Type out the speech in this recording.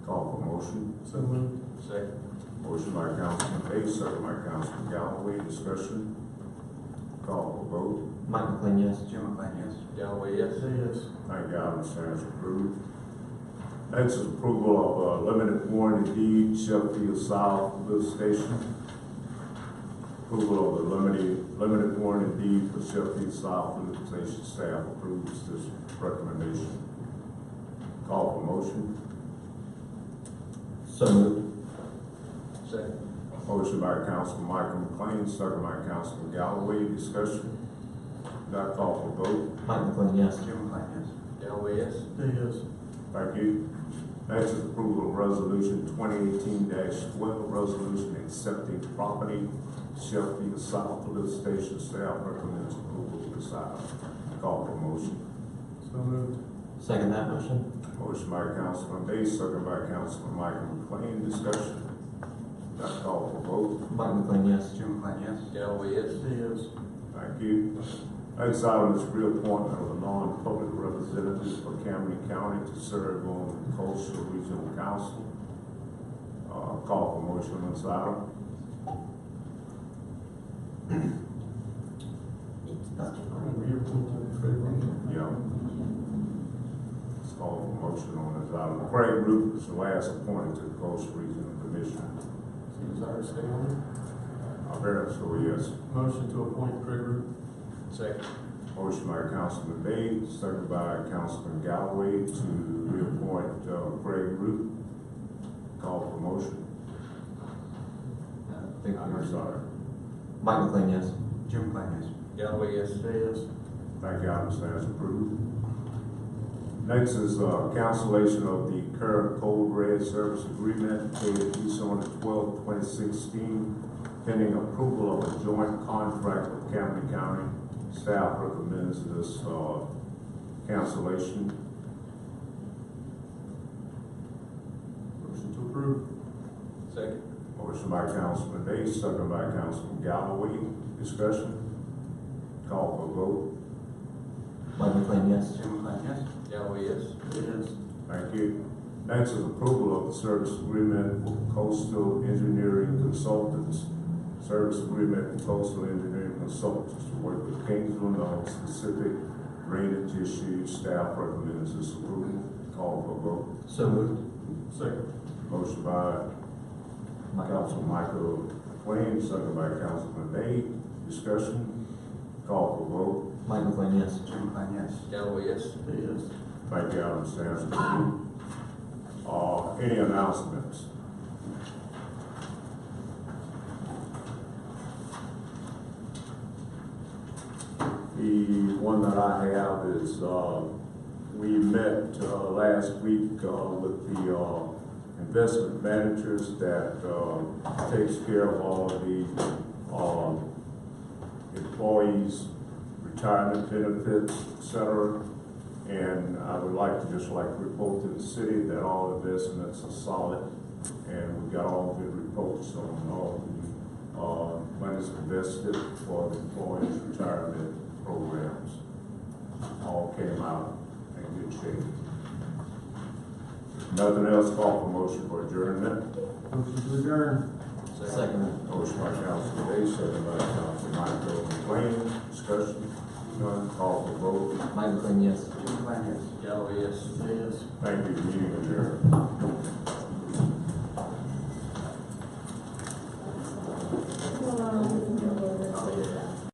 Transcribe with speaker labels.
Speaker 1: motion?
Speaker 2: So moved.
Speaker 3: Second.
Speaker 1: Motion by Councilman Page, second by Councilman Galloway, discussion. Call for vote.
Speaker 4: Mike McLean, yes.
Speaker 5: Jim McLean, yes.
Speaker 3: Galloway, yes.
Speaker 2: Say yes.
Speaker 1: Thank God, the stands approved. Next is approval of uh, limited warranty deed Sheffield South Lift Station. Approval of the limited, limited warranty deed for Sheffield South Lift Station staff approves this recommendation. Call for motion.
Speaker 4: So moved.
Speaker 3: Second.
Speaker 1: Motion by Councilman Michael McLean, second by Councilman Galloway, discussion. Not call for vote.
Speaker 4: Mike McLean, yes.
Speaker 5: Jim McLean, yes.
Speaker 3: Galloway, yes.
Speaker 2: Say yes.
Speaker 1: Thank you. Next is approval of resolution twenty eighteen twelve, resolution accepting property Sheffield South Lift Station staff recommends approval of this item. Call for motion.
Speaker 2: So moved.
Speaker 4: Second that motion.
Speaker 1: Motion by Councilman Day, second by Councilman Michael McLean, discussion. Not call for vote.
Speaker 4: Mike McLean, yes.
Speaker 5: Jim McLean, yes.
Speaker 3: Galloway, yes.
Speaker 2: Say yes.
Speaker 1: Thank you. Next item is reappointment of a non-public representative for Camden County to serve on the Coastal Regional Council. Uh, call for motion on this item. Yeah. Let's call for motion on this item. Craig Root is the last appointed to the Coastal Regional Commission.
Speaker 2: Desire to stay on
Speaker 1: I very much so, yes.
Speaker 2: it. Motion to appoint Craig Root.
Speaker 3: Second.
Speaker 1: Motion by Councilman Day, second by Councilman Galloway to reappoint uh, Craig Root. Call for motion.
Speaker 4: Thank
Speaker 1: I'm
Speaker 4: you.
Speaker 1: sorry.
Speaker 4: Mike McLean, yes.
Speaker 5: Jim McLean, yes.
Speaker 3: Galloway, yes.
Speaker 2: Say yes.
Speaker 1: Thank you, item stands approved. Next is, uh, cancellation of the current Code Red Service Agreement dated December twelfth, twenty sixteen, pending approval of a joint contract with Camden County. Staff recommends this, uh, cancellation.
Speaker 2: Motion to approve.
Speaker 3: Second.
Speaker 1: Motion by Councilman Day, second by Councilman Galloway. Discussion? Call for vote.
Speaker 4: Mike McLean, yes.
Speaker 5: Jim McLean, yes.
Speaker 3: Galloway, yes.
Speaker 2: Say yes.
Speaker 1: Thank you. Next is approval of the service agreement with Coastal Engineering Consultants. Service agreement with Coastal Engineering Consultants to work with Kingsland on specific drainage issues. Staff recommends this approval. Call for vote.
Speaker 4: So moved.
Speaker 2: Second.
Speaker 1: Motion by Councilman Michael McLean, second by Councilman Day. Discussion. Call for vote.
Speaker 4: Mike McLean, yes.
Speaker 5: Jim McLean, yes.
Speaker 3: Galloway, yes.
Speaker 2: Say yes.
Speaker 1: Thank you, Adam Sampson. Uh, any announcements? The one that I have is, uh, we met, uh, last week, uh, with the, uh, investment managers that, uh, takes care of all of the, um, employees' retirement benefits, et cetera. And I would like to just like report to the city that all investments are solid and we got all good reports on all the, uh, monies invested for the employees' retirement programs. All came out in good shape. Nothing else, call for motion for adjournment.
Speaker 2: Motion to adjourn.
Speaker 4: Second.
Speaker 1: Motion by Councilman Day, second by Councilman Michael McLean, discussion, none, call for vote.
Speaker 4: Mike McLean, yes.
Speaker 5: Jim McLean, yes.
Speaker 3: Galloway, yes.
Speaker 2: Say yes.
Speaker 1: Thank you, meeting adjourned.